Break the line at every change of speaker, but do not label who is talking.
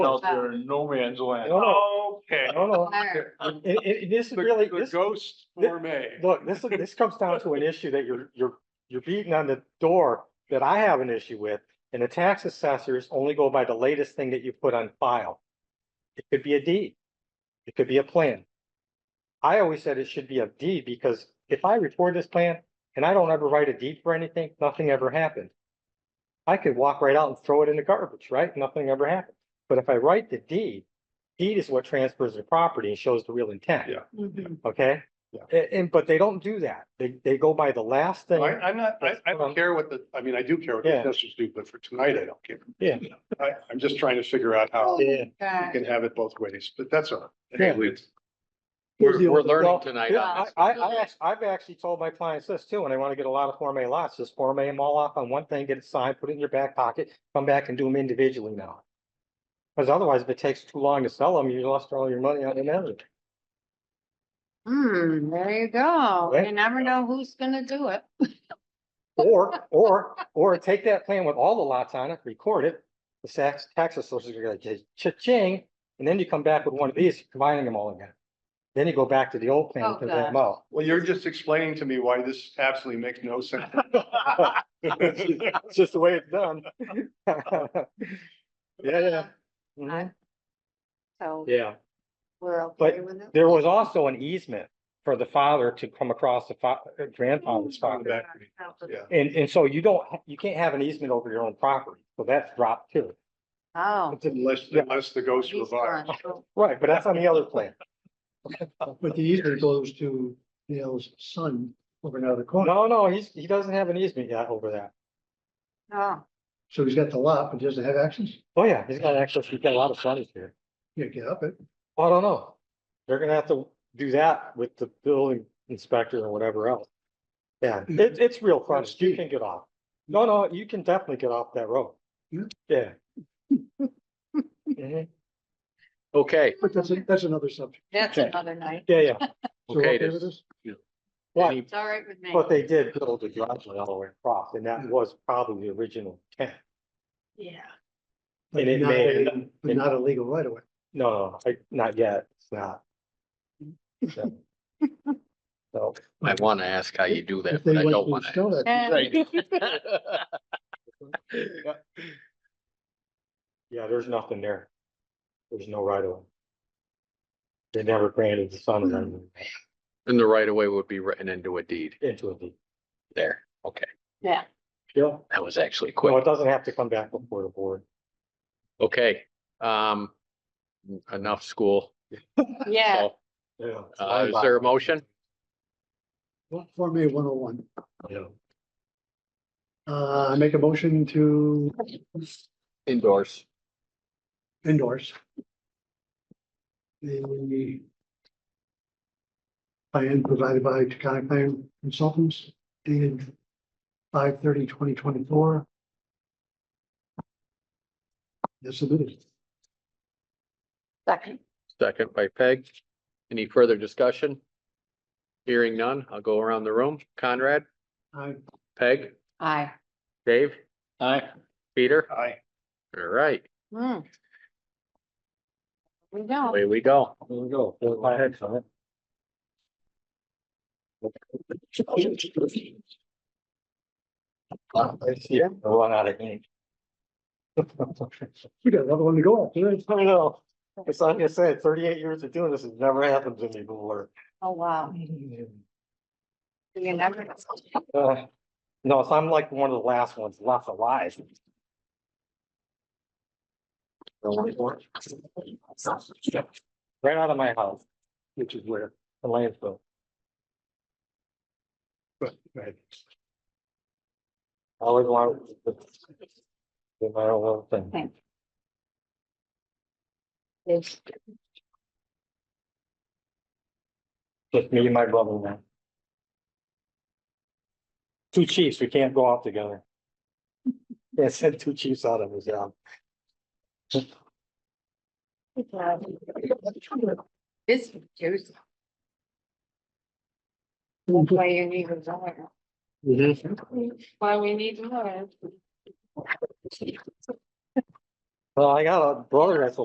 out there in no man's land.
No, no,
Okay.
no, no.
Fire.
Oh, It, it, this is really,
The
this,
ghost
thi-
gourmet.
look, this, this comes down to an issue that you're, you're, you're beating on the door that I have an issue with. And the tax assessors only go by the latest thing that you put on file. It could be a deed. It could be a plan. I always said it should be a deed because if I record this plan and I don't ever write a deed for anything, nothing ever happened. I could walk right out and throw it in the garbage, right? Nothing ever happened. But if I write the deed, deed is what transfers the property and shows the real intent.
Yeah.
Mhm.
Okay?
Yeah.
A- And, but they don't do that. They, they go by the last
I,
thing.
I'm not, I, I don't care what the, I mean, I do care what the
Yeah.
assessors do, but for tonight, I don't care.
Yeah.
I, I'm just trying to figure out how we
Oh, Yeah.
God.
can have it both ways, but that's all.
Yeah.
We're,
Here's the
we're
only- well,
learning tonight on
Yeah,
this.
I, I, I, act- I've actually told my clients this too, and I want to get a lot of Form A lots, just Form A them all off on one thing, get it signed, put it in your back pocket, come back and do them individually now. Because otherwise, if it takes too long to sell them, you lost all your money on the management.
Hmm, there you go. You
Right.
never know who's gonna do it.
Or, or, or take that plan with all the lots on it, record it, the tax, tax assessors are gonna say, cha-ching, and then you come back with one of these, combining them all again. Then you go back to the old plan,
Oh,
because them out.
Well, you're just explaining to me why this absolutely makes no sense.
It's just the way it's done. Yeah, yeah. Mhm.
I- So
Yeah,
we're
But
okay with it.
there was also an easement for the father to come across the fa- uh, grandfather's
Oh.
Back
property.
to me. Yeah.
And, and so you don't, ha- you can't have an easement over your own property, so that's dropped too.
Oh.
Unless,
Yeah.
unless the ghost
he's
revives.
gone. Oh,
Right, but that's on the other plan.
But the easement goes to Dale's son over in another corner.
No, no, he's, he doesn't have an easement yet over that.
Oh,
So he's got the lot, but he doesn't have access.
Oh, yeah, he's got access, he's got a lot of frontage here.
Can't get up it.
Well, I don't know. They're gonna have to do that with the building inspector or whatever else. Yeah, it, it's real frontage. You can get off. No, no, you can definitely get off that road.
Yeah.
Yeah.
Mm-hmm.
Mhm.
Okay,
But that's, a- that's another subject.
that's
Okay.
another night.
Yeah, yeah.
So we're
Okay,
okay with
this-
this?
But,
any-
It's all right with me.
but they did build a driveway all the way across and that was probably the original intent.
Yeah.
But
And it
not
may-
a- But not a legal right away.
No, no, I, not yet. It's not. So. So,
I want to ask how you do that,
If they
but I
like
don't
to
want to.
install that,
Yeah.
yeah, there's nothing there. There's no right of way. They never granted the son of
Hmm.
them
And the right of way would be written into a deed
into a deed.
there. Okay,
Yeah.
Yeah.
that was actually
No,
quick.
it doesn't have to come back before the board.
Okay, um, enough school.
Yeah.
So, uh, is there a motion?
Form A one oh one.
Yeah.
Uh, I make a motion to
Endorse.
endorse. The plan provided by Takana Plan Consultants dated 2024. As submitted.
Second.
Second by Peg. Any further discussion? Hearing none, I'll go around the room. Conrad,
I
Peg,
Aye.
Dave,
Aye.
Peter.
Aye.
All right,
Hmm. We don't.
away we go.
There we go. There's my head on it. I see it. I run out of ink.
We got another one to go after.
I know. It's like I said, thirty-eight years of doing this, it's never happened to me before.
Oh, wow. You never.
Uh, No, so I'm like one of the last ones left alive. Right out of my house, which is where the landfill. Right. I Always want. to Do my own little thing.
It's
Just me and my brother now. Two chiefs, we can't go out together. Yeah, send two chiefs out of his uh, job.
it's juicy. That's why you need a lawyer.
Mm-hmm.
Why we need lawyers.
Well, I got a brother that's a